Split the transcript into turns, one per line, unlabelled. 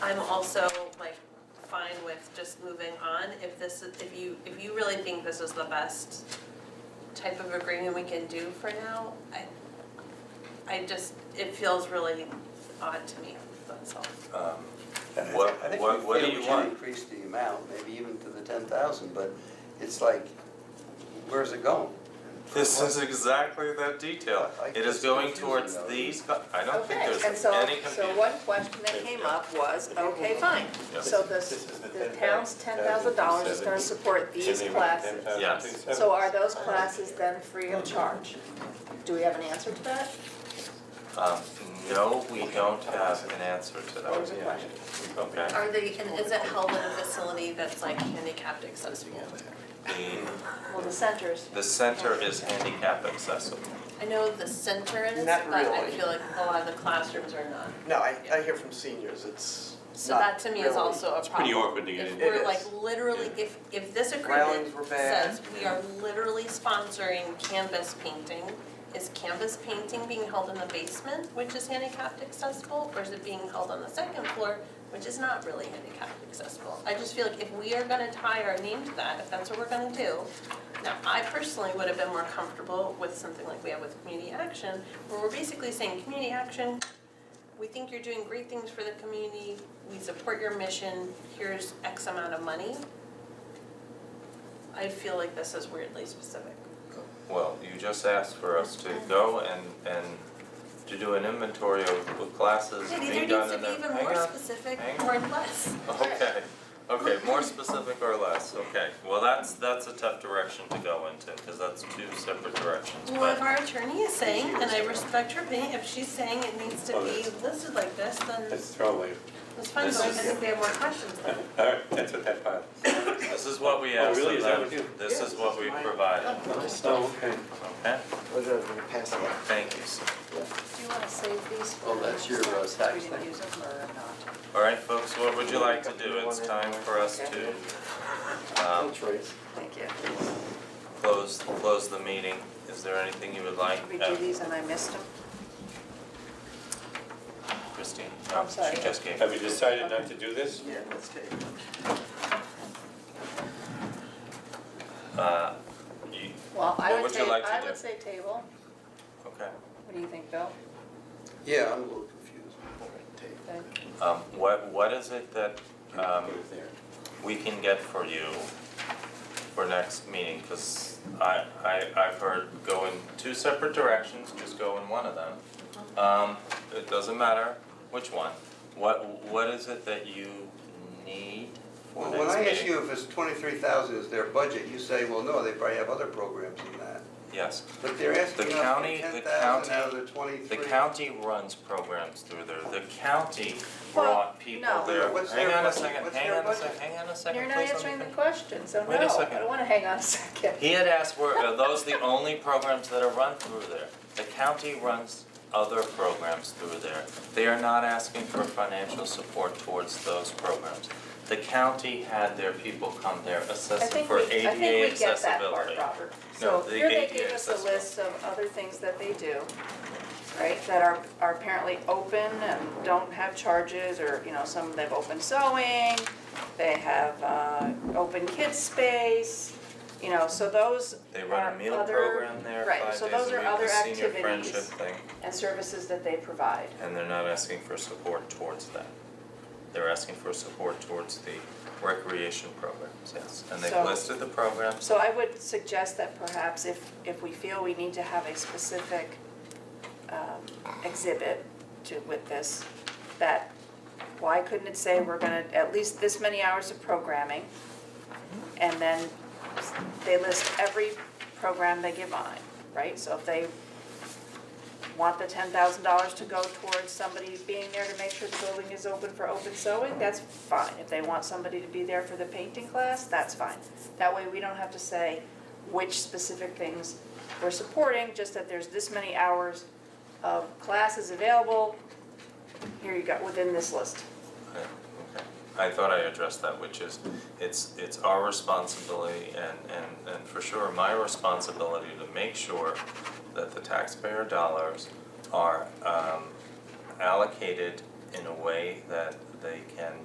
I'm also like fine with just moving on if this, is- if you, if you really think this is the best type of agreement we can do for now, I, I just, it feels really odd to me, that's all.
Um,
And I-
What-
I think
what-
we
what do
feel
you
we
want?
should increase the amount, maybe even to the ten thousand, but it's like, where's it going?
This is exactly that detail.
I- I
It is
just
going
confusing
towards
though.
these, co- I don't think
Okay,
there's
and so,
any
so
confusion.
one question that came up was, okay, fine,
Yes.
so the,
This is the
the town's ten thousand dollars is gonna support these classes.
Yes.
So are those classes then free of charge? Do we have an answer to that?
Um, no, we don't have an answer to
That was a
that.
question.
Okay.
Are they, and is it held in a facility that's like handicapped accessible?
The,
Well, the centers,
the center is handicap accessible.
I know the center is, but
Not
I
really.
feel like a lot of the classrooms are not.
No, I, I hear from seniors, it's
So that
not
to me is
really-
also a problem.
pretty awkward to get
If
in.
we're
It
like
is.
literally, if, if this agreement
Railings were bad.
says we are literally sponsoring canvas painting, is canvas painting being held in the basement, which is handicapped accessible, or is it being held on the second floor, which is not really handicapped accessible? I just feel like if we are gonna tie our name to that, if that's what we're gonna do, now, I personally would have been more comfortable with something like we have with community action, where we're basically saying, community action, we think you're doing great things for the community, we support your mission, here's X amount of money. I feel like this is weirdly specific.
Well, you just asked for us to go and, and to do an inventory of the classes
It either
being
needs
done
to
in the.
be even
hang
more
on.
specific
hang
or less.
Okay, okay, more specific or less, okay. Well, that's, that's a tough direction to go into, because that's two separate directions,
Well, if
but,
our attorney is saying, and I respect her opinion, if she's saying it needs to be listed like this, then
That's throwaway.
it's fine,
Oh, This
but I
is-
think we have more questions then.
All right, that's what that file.
this is what we asked
Oh, really?
of
Is that
them.
what you-
this
Yeah,
is
this
what
is
we
mine.
provided,
Oh, okay.
okay?
What's that, we're passing out?
Thank you, sir.
do you wanna save these for?
Oh, that's your, uh,
next time,
tax thing.
so We didn't use them or not?
All right, folks, what would you like to do? It's time for us to, um,
That's right.
Thank you.
close, close the meeting. Is there anything you would like,
Did we
uh,
do these and I missed them?
Christine? Um,
I'm sorry.
She just gave.
Have we decided not to do this?
Yeah, let's take it.
Uh, you,
Well,
What
I would
would you
say,
like to
I
do?
would say table.
okay.
What do you think, Bill?
Yeah, I'm a little confused.
Good.
Um, what, what is it that, um,
Put it there.
we can get for you for next meeting, cause I, I, I've heard go in two separate directions, just go in one of them.
Uh-huh.
Um, it doesn't matter which one, what, what is it that you need for
Well,
next meeting?
when I ask you if it's twenty-three thousand is their budget, you say, well, no, they probably have other programs than that.
Yes,
But they're asking us for
county- the
ten thousand out of
county-
the
the
twenty-three.
county runs programs through there, the county
Well,
brought people
no.
there.
What's
Hang
their
on a
budget?
second,
What's
hang
their
on a
budget?
second, hang on a second, please,
You're not
let me
answering the
finish.
question, so no,
Wait a
I
second.
don't wanna hang on a second.
He had asked, were, are those the only programs that are run through there? The county runs other programs through there. They are not asking for financial support towards those programs. The county had their people come there
I
assessing
think
for
we,
ADA
I
accessibility.
think we get that part, Robert. So
No, the
here they
ADA
gave us a
accessible.
list of other things that they do, right, that are, are apparently open and don't have charges, or, you know, some, they've open sewing, they have, uh, open kids space, you know, so those
They
are
run a meal
other-
program there,
right,
five days
so
a week,
those are other
the senior
activities.
friendship thing,
And services that they provide.
and they're not asking for support towards that. They're asking for support towards the recreation programs, yes, and they've
So-
listed the programs.
So I would suggest that perhaps if, if we feel we need to have a specific um, exhibit to, with this, that why couldn't it say we're gonna, at least this many hours of programming? And then they list every program they give on it, right? So if they want the ten thousand dollars to go towards somebody being there to make sure the building is open for open sewing, that's fine. If they want somebody to be there for the painting class, that's fine. That way, we don't have to say which specific things we're supporting, just that there's this many hours of classes available. Here you go, within this list.
Okay, okay. I thought I addressed that, which is, it's, it's our responsibility and, and, and for sure my responsibility to make sure that the taxpayer dollars are, um, allocated in a way that they can